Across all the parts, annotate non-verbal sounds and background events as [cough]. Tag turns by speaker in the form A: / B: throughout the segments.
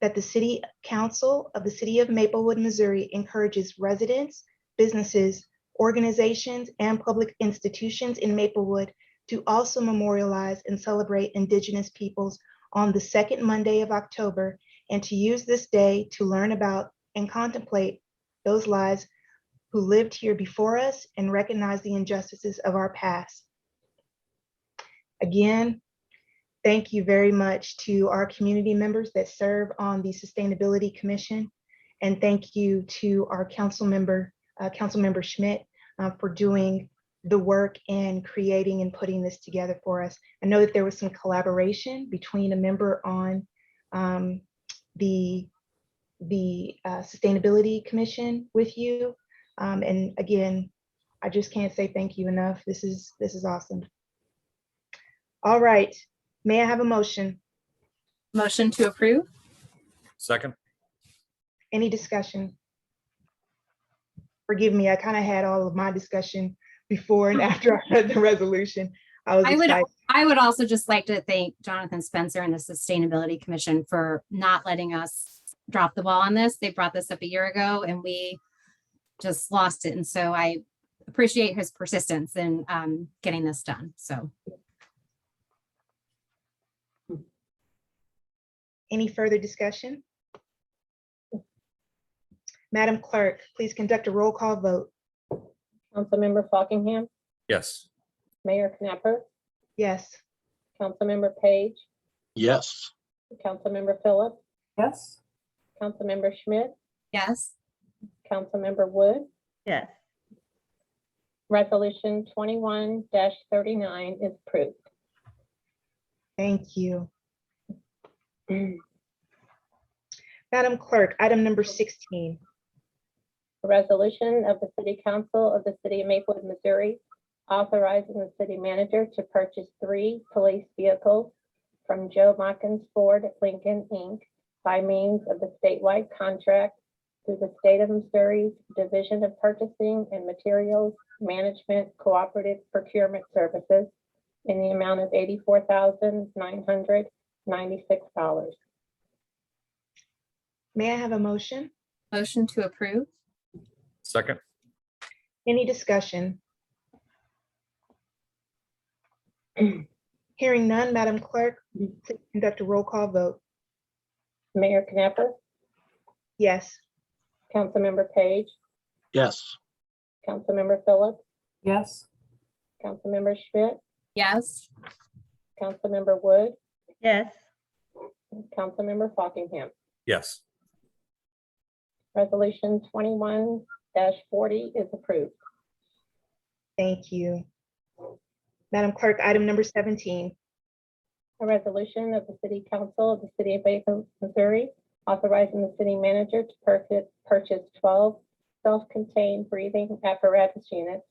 A: that the City Council of the City of Maplewood, Missouri encourages residents, businesses, organizations, and public institutions in Maplewood to also memorialize and celebrate Indigenous peoples on the second Monday of October and to use this day to learn about and contemplate those lives who lived here before us and recognize the injustices of our past. Again, thank you very much to our community members that serve on the Sustainability Commission. And thank you to our council member, uh, Councilmember Schmidt, uh, for doing the work and creating and putting this together for us. I know that there was some collaboration between a member on um, the, the uh, Sustainability Commission with you. Um, And again, I just can't say thank you enough. This is, this is awesome. All right, May I have a motion?
B: Motion to approve?
C: Second,
A: Any discussion? Forgive me, I kind of had all of my discussion before and after I read the resolution. I was
B: I would-
A: excited.
B: I would also just like to thank Jonathan Spencer and the Sustainability Commission for not letting us drop the ball on this. They brought this up a year ago and we just lost it. And so I appreciate his persistence in um, getting this done. So
A: Any further discussion? Madam Clerk, please conduct a roll call vote.
D: Councilmember Fockingham,
C: yes.
D: Mayor Knapper,
A: Yes,
D: Councilmember Page,
E: yes,
D: Councilmember Phillips,
F: Yes.
D: Councilmember Schmidt,
B: yes,
D: Councilmember Wood.
F: Yes.
D: Resolution twenty-one thirty-nine is approved.
A: thank you. Madam Clerk, item number 16.
D: A resolution of the City Council of the City of Maplewood, Missouri, authorizing the city manager to purchase three police vehicles from Joe Mockins Ford Lincoln, Inc. by means of the statewide contract through the State of Missouri Division of Purchasing and Materials Management Cooperative Procurement Services in the amount of eighty-four thousand nine hundred ninety-six dollars.
A: May I have a motion?
B: motion to approve?
C: Second,
A: Any discussion? [clears throat] Hearing none, Madam Clerk, please conduct a roll call vote.
D: Mayor Knapper,
A: Yes,
D: Councilmember Page,
E: yes,
D: Councilmember Phillips,
F: Yes.
D: Councilmember Schmidt,
B: Yes,
D: Councilmember Wood,
F: Yes.
D: Councilmember Fockingham.
C: yes.
D: Resolution twenty-one forty is approved.
A: thank you. Madam Clerk, item number 17.
D: A resolution of the City Council of the City of Bathrop, Missouri, authorizing the city manager to purchase, purchase twelve self-contained breathing apparatus units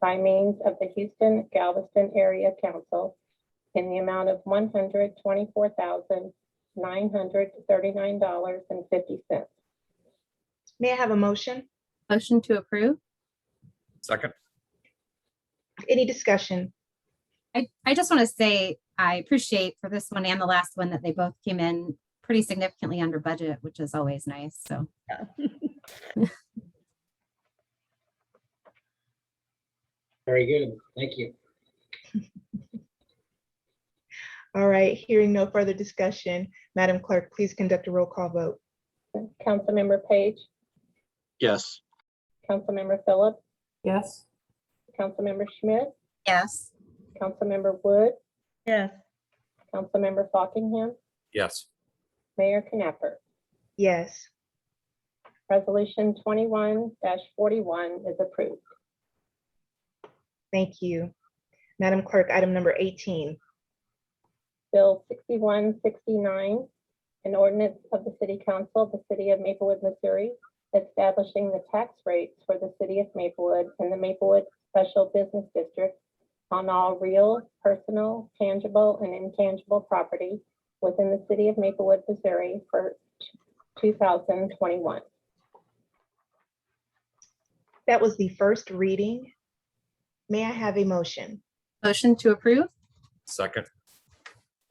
D: by means of the Houston Galveston Area Council in the amount of one hundred twenty-four thousand, nine hundred thirty-nine dollars and fifty cents.
A: May I have a motion?
B: motion to approve?
C: Second,
A: Any discussion?
B: I, I just want to say I appreciate for this one and the last one that they both came in pretty significantly under budget, which is always nice. So
G: Very good. Thank you.
A: All right, hearing no further discussion, Madam Clerk, please conduct a roll call vote.
D: Councilmember Page,
E: yes,
D: Councilmember Phillips,
F: Yes.
D: Councilmember Schmidt,
B: yes.
D: Councilmember Wood,
F: Yes.
D: Councilmember Fockingham,
C: yes.
D: Mayor Knapper.
A: Yes,
D: Resolution twenty-one forty-one is approved.
A: thank you. Madam Clerk, item number 18.
D: Bill sixty-one sixty-nine, an ordinance of the City Council of the City of Maplewood, Missouri, establishing the tax rates for the City of Maplewood and the Maplewood Special Business District on all real, personal, tangible, and intangible property within the City of Maplewood, Missouri for two thousand twenty-one.
A: That was the first reading. May I have a motion?
B: Motion to approve?
C: Second,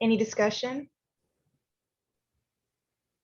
A: Any discussion?